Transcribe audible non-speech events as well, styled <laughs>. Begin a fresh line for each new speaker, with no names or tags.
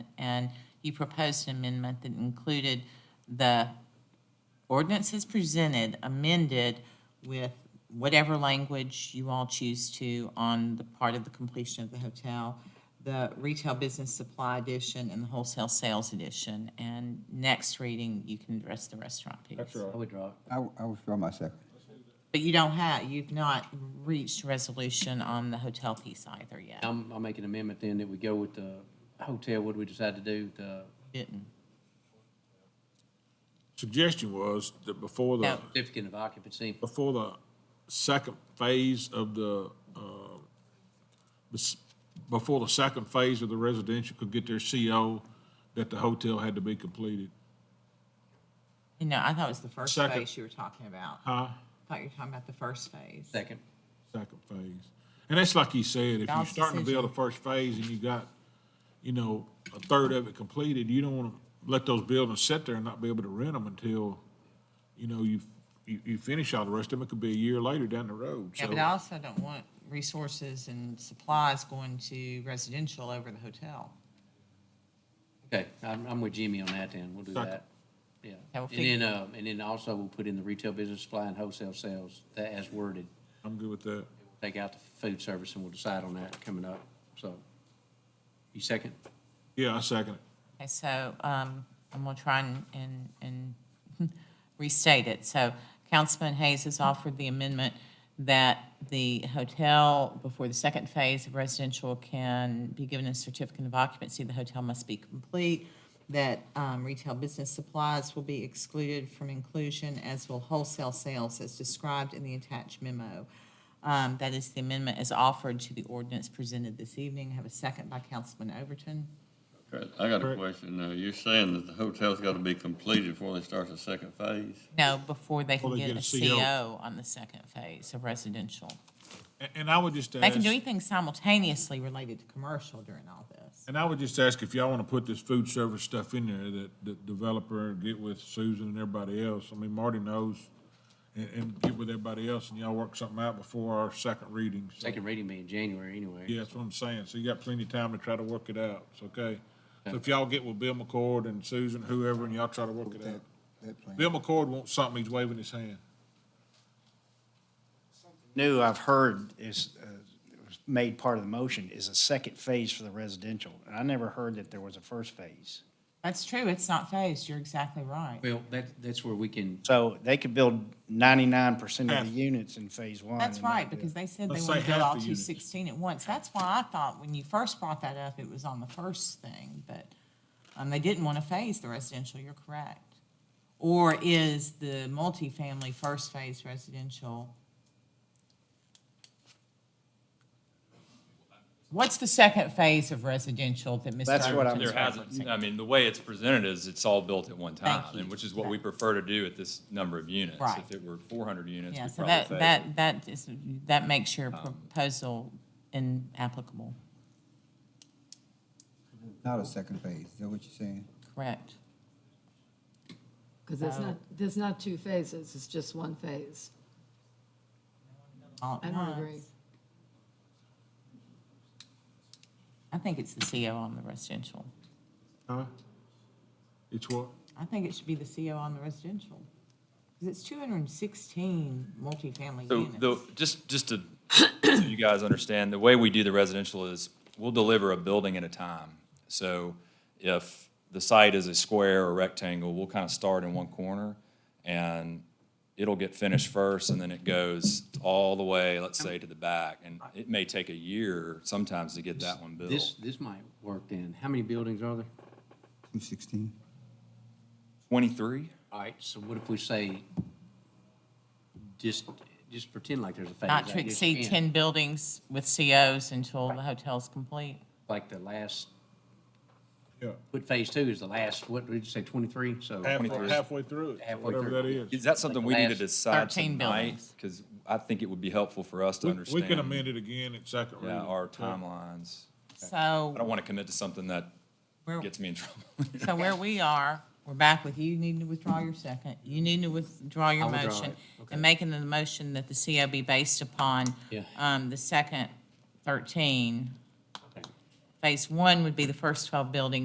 and you proposed an amendment that included the ordinance as presented, amended with whatever language you all choose to on the part of the completion of the hotel, the retail business supply edition and the wholesale sales edition. And next reading, you can address the restaurant piece.
I withdraw.
I, w- I withdraw my second.
But you don't have, you've not reached resolution on the hotel piece either yet.
I'm, I'll make an amendment then that we go with the hotel, what do we decide to do, the
Didn't.
suggestion was that before the,
No.
certificate of occupancy.
before the second phase of the, uh, bes- before the second phase of the residential could get their CO, that the hotel had to be completed.
You know, I thought it was the first
Second.
phase you were talking about. I
Huh?
thought you were talking about the first phase.
Second,
Second phase. And that's like you said, if you're
Y'all's
starting to build
decision.
the first phase and you got, you know, a third of it completed, you don't want to let those buildings sit there and not be able to rent them until, you know, you, you, you finish all the rest of them. It could be a year later down the road,
Yeah,
so.
but I also don't want resources and supplies going to residential over the hotel.
okay, I'm, I'm with Jimmy on that then, we'll do
Second.
that. Yeah,
I'll
and
fig-
then, uh, and then also we'll put in the retail business supply and wholesale sales, that as worded.
I'm good with that.
Take out the food service and we'll decide on that coming up, so. You second?
Yeah, I second it.
Okay, so, um, I'm gonna try and, and, and <laughs> restate it. So Councilman Hayes has offered the amendment that the hotel, before the second phase of residential can be given a certificate of occupancy, the hotel must be complete, that, um, retail business supplies will be excluded from inclusion, as will wholesale sales as described in the attached memo. Um, that is, the amendment is offered to the ordinance presented this evening. Have a second by Councilman Overton.
Okay, I got a
Correct.
question. Now, you're saying that the hotel's got to be completed before they start the second phase?
No, before they can
Before they
get a
get a CO.
CO on the second phase of residential.
A- And I would just
They can do
ask,
anything simultaneously related to commercial during all this.
and I would just ask if y'all want to put this food service stuff in there that the developer get with Susan and everybody else. I mean, Marty knows and, and get with everybody else and y'all work something out before our second reading. So,
Second reading be in January anyway.
Yeah, that's what I'm saying. So you got plenty of time to try to work it out. It's okay. So if y'all get with Bill McCord and Susan, whoever, and y'all try to work it out.
That plan.
Bill McCord wants something, he's waving his hand.
new I've heard is, uh, was made part of the motion is a second phase for the residential. And I never heard that there was a first phase.
That's true, it's not phased, you're exactly right.
Well, that, that's where we can,
So they could build ninety-nine percent of the
Half.
units in phase one.
That's
and not
right,
do it.
because they said they
Let's
want
say
to build
half
all
the
two
units.
sixteen at once. That's why I thought when you first brought that up, it was on the first thing, but, um, they didn't want to phase the residential, you're correct. Or is the multifamily first phase residential? What's the second phase of residential that Mr.
That's what I'm-
Overton's
There hasn't, I mean, the way it's presented is it's all built at one time,
Thank you.
and which is what we prefer to do at this number of units.
Right.
If it were four hundred units,
Yeah,
we'd
so
probably
that,
favor-
that, that is, that makes your
Um.
proposal inapplicable,
Not a second phase, is that what you're saying?
correct?
Because there's not, there's not two phases, it's just one phase.
all at
I don't agree.
once. I think it's the CO on the residential.
Huh? It's what?
I think it should be the CO on the residential. Because it's 216 multifamily
So the,
units.
just, just to, so you guys understand, the way we do the residential is we'll deliver a building at a time. So if the site is a square or rectangle, we'll kind of start in one corner and it'll get finished first and then it goes all the way, let's say, to the back. And it may take a year sometimes to get that one built.
this, this might work then. How many buildings are there?
Two sixteen?
Twenty-three?
All right, so what if we say, just, just pretend like there's a phase.
Not to
like there's
exceed 10 buildings with COs until the hotel's complete.
Like the last,
Yeah.
what phase two is the last, what, did you say, twenty-three? So
Halfway, halfway through it,
Halfway
whatever
through.
that is.
Is that something we need to
last
decide
13
tonight?
buildings.
Because I think it would be helpful for us to
We- We
understand.
can amend it again at second reading.
Yeah, our timelines. I
So
don't want to commit to something that
we're,
gets me in trouble.
<laughs> so where we are, we're back with you needing to withdraw your second. You need to withdraw your
I'll withdraw
motion.
it. Okay.
And making the motion that the CO be based upon
Yeah.
um, the second 13.
Okay.
Phase one would be the first 12 buildings.